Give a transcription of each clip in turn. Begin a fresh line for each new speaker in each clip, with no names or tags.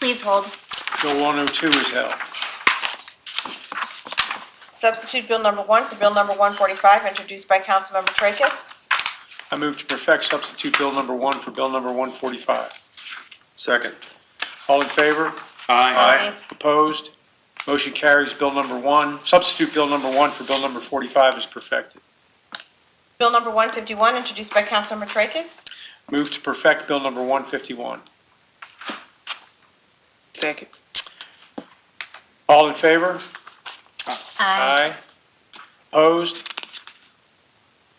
Please hold.
Bill 102 is held.
Substitute Bill number one for Bill number 145, introduced by Councilmember Tracus.
I move to perfect substitute Bill number 1 for Bill number 145.
Second.
All in favor?
Aye.
Opposed? Motion carries. Bill number 1, substitute Bill number 1 for Bill number 45 is perfected.
Bill number 151, introduced by Councilmember Tracus.
Move to perfect Bill number 151.
Second.
All in favor?
Aye.
Opposed?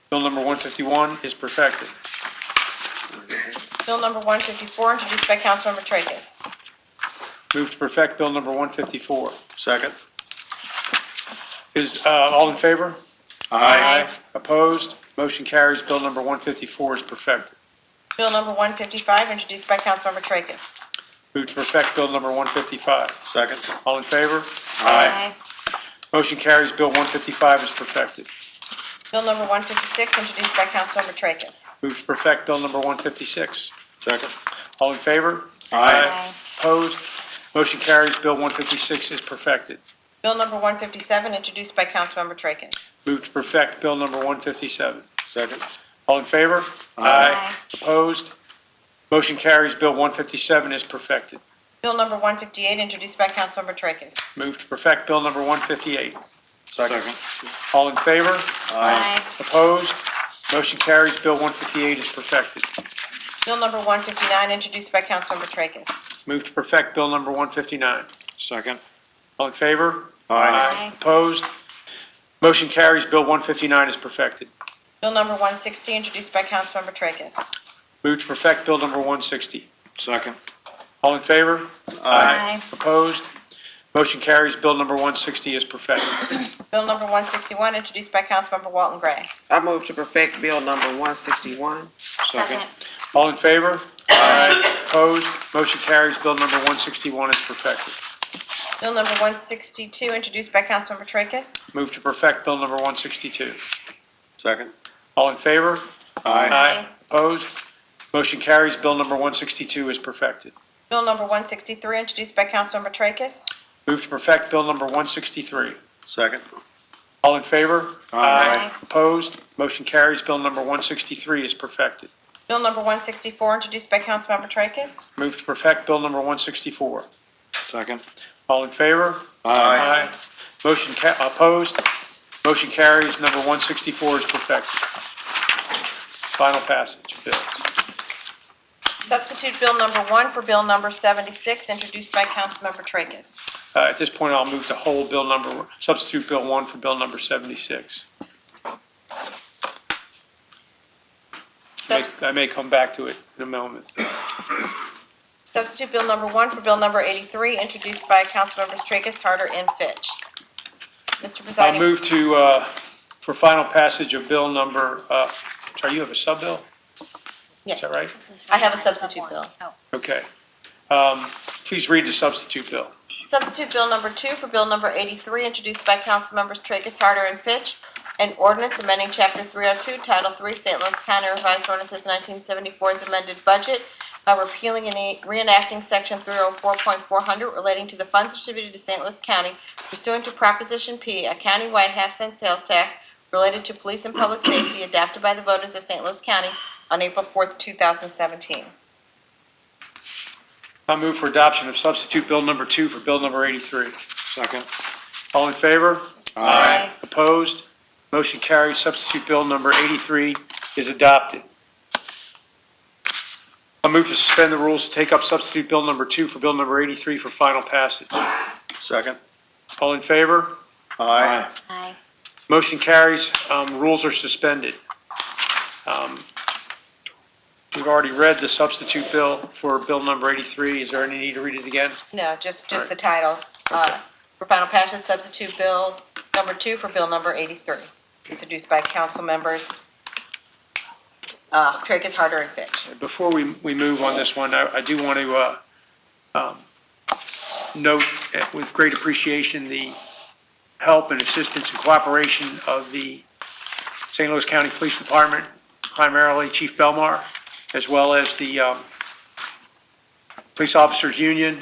Bill number 151 is perfected.
Bill number 154, introduced by Councilmember Tracus.
Move to perfect Bill number 154.
Second.
Is, uh, all in favor?
Aye.
Opposed? Motion carries. Bill number 154 is perfected.
Bill number 155, introduced by Councilmember Tracus.
Move to perfect Bill number 155.
Second.
All in favor?
Aye.
Motion carries. Bill 155 is perfected.
Bill number 156, introduced by Councilmember Tracus.
Move to perfect Bill number 156.
Second.
All in favor?
Aye.
Opposed? Motion carries. Bill 156 is perfected.
Bill number 157, introduced by Councilmember Tracus.
Move to perfect Bill number 157.
Second.
All in favor?
Aye.
Opposed? Motion carries. Bill 157 is perfected.
Bill number 158, introduced by Councilmember Tracus.
Move to perfect Bill number 158.
Second.
All in favor?
Aye.
Opposed? Motion carries. Bill 158 is perfected.
Bill number 159, introduced by Councilmember Tracus.
Move to perfect Bill number 159.
Second.
All in favor?
Aye.
Aye.
Opposed? Motion carries. Bill 159 is perfected.
Bill number 160, introduced by Councilmember Tracus.
Move to perfect Bill number 160.
Second.
All in favor?
Aye.
Opposed? Motion carries. Bill number 160 is perfected.
Bill number 161, introduced by Councilmember Walton Gray.
I move to perfect Bill number one sixty-one.
Second.
All in favor? Aye. Opposed? Motion carries. Bill number 161 is perfected.
Bill number 162, introduced by Councilmember Tracus.
Move to perfect Bill number 162.
Second.
All in favor?
Aye.
Opposed? Motion carries. Bill number 162 is perfected.
Bill number 163, introduced by Councilmember Tracus.
Move to perfect Bill number 163.
Second.
All in favor?
Aye.
Opposed? Motion carries. Bill number 163 is perfected.
Bill number 164, introduced by Councilmember Tracus.
Move to perfect Bill number 164.
Second.
All in favor?
Aye.
Motion ca, opposed? Motion carries. Number 164 is perfected. Final passage, Bill.
Substitute Bill number 1 for Bill number 76, introduced by Councilmember Tracus.
Uh, At this point, I'll move to hold Bill number, substitute Bill 1 for Bill number 76. May-
Subs-
I may come back to it in a moment.
Substitute Bill number 1 for Bill number 83, introduced by Councilmembers Tracus, Harder, and Fitch. Mr.
I'll
Presiding,
move to, uh, for final passage of Bill number, uh, sorry, you have a sub-bill?
Yeah.
Is that right?
I have a substitute bill.
Okay. Um, Please read the substitute bill.
Substitute Bill number two for Bill number eighty-three, introduced by Councilmembers Tracus, Harder, and Fitch, an ordinance amending Chapter three oh two, Title three, St. Louis County Revised Ordinances nineteen seventy-four's amended budget by repealing and reenacting Section three oh four point four hundred relating to the funds distributed to St. Louis County pursuant to Proposition P, a countywide half-cent sales tax related to police and public safety adopted by the voters of St. Louis County on April fourth, two thousand seventeen.
I move for adoption of substitute Bill number 2 for Bill number 83.
Second.
All in favor?
Aye.
Opposed? Motion carries. Substitute Bill number 83 is adopted. I move to suspend the rules to take up substitute Bill number 2 for Bill number 83 for final passage.
Second.
All in favor?
Aye.
Aye.
Motion carries. Um, Rules are suspended. Um, We've already read the substitute bill for Bill number 83. Is there any need to read it again?
No, just,
just
just
the
the title. Uh, For final passage, substitute bill number two for bill number 83, introduced by council members Tracus, Harder, and Fitch.
Before we, we move on this one, I, I do want to, uh, um, note uh, with great appreciation the help and assistance and cooperation of the St. Louis County Police Department, primarily Chief Belmar, as well as the, um, Police Officers Union